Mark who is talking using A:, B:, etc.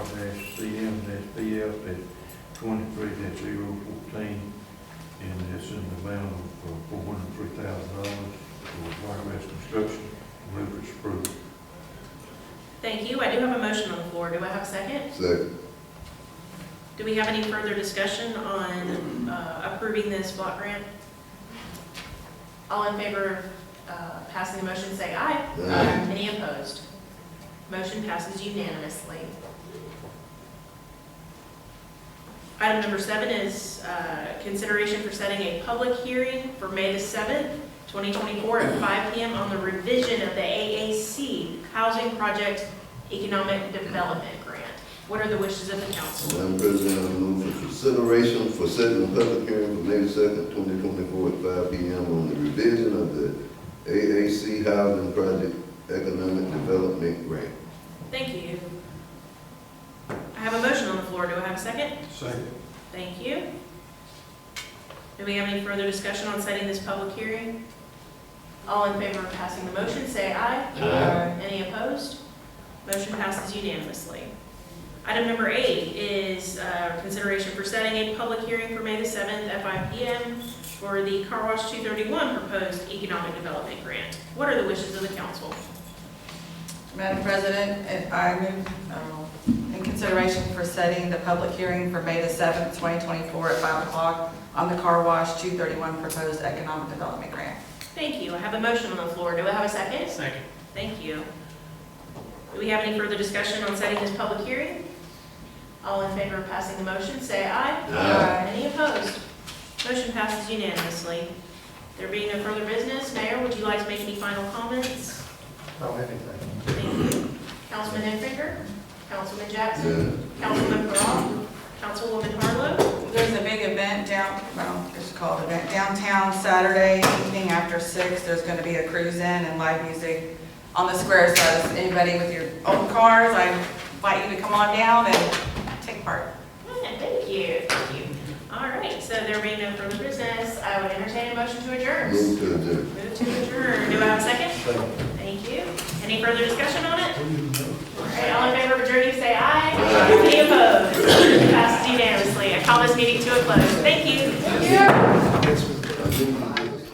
A: F at twenty-three dash zero fourteen, and it's in the amount of uh, four hundred and three thousand dollars for Wiregrass Construction, Rupert Spruce.
B: Thank you. I do have a motion on the floor. Do I have a second?
C: Second.
B: Do we have any further discussion on uh, approving this block grant? All in favor of uh, passing the motion, say aye.
C: Aye.
B: Any opposed? Motion passes unanimously. Item number seven is uh, consideration for setting a public hearing for May the 7th, 2024, at 5 PM on the revision of the AAC Housing Project Economic Development Grant. What are the wishes of the council?
C: Madam President, I move for consideration for setting a public hearing for May second, twenty twenty-four at five P M on the revision of the AAC Housing Project Economic Development Grant.
B: Thank you. I have a motion on the floor. Do I have a second?
A: Second.
B: Thank you. Do we have any further discussion on setting this public hearing? All in favor of passing the motion, say aye.
C: Aye.
B: Any opposed? Motion passes unanimously. Item number eight is uh, consideration for setting a public hearing for May the 7th at 5 PM for the Car Wash 231 proposed economic development grant. What are the wishes of the council?
D: Madam President, and I move um, in consideration for setting the public hearing for May the 7th, 2024 at 5 o'clock on the Car Wash 231 proposed economic development grant.
B: Thank you. I have a motion on the floor. Do I have a second?
E: Second.
B: Thank you. Do we have any further discussion on setting this public hearing? All in favor of passing the motion, say aye.
C: Aye.
B: Any opposed? Motion passes unanimously. There being no further business, Mayor, would you like to make any final comments?
A: Oh, anything.
B: Thank you. Councilman Enfinger, Councilman Jackson,
C: Yeah.
B: Councilman Peralta, Councilwoman Harlow.
D: There's a big event down, well, it's called event downtown Saturday evening after 6. There's going to be a cruise in and live music on the square. So if anybody with your own cars, I invite you to come on down and take part.
B: Yeah, Thank you, thank you. All right, so there being no further business, I would entertain a motion to adjourn.
C: Move to adjourn.
B: Move to adjourn. Do I have a second? Thank you. Any further discussion on it? All right, all in favor of adjourning, say aye. Any opposed? Passed unanimously. I call this meeting to a close. Thank you. Thank you.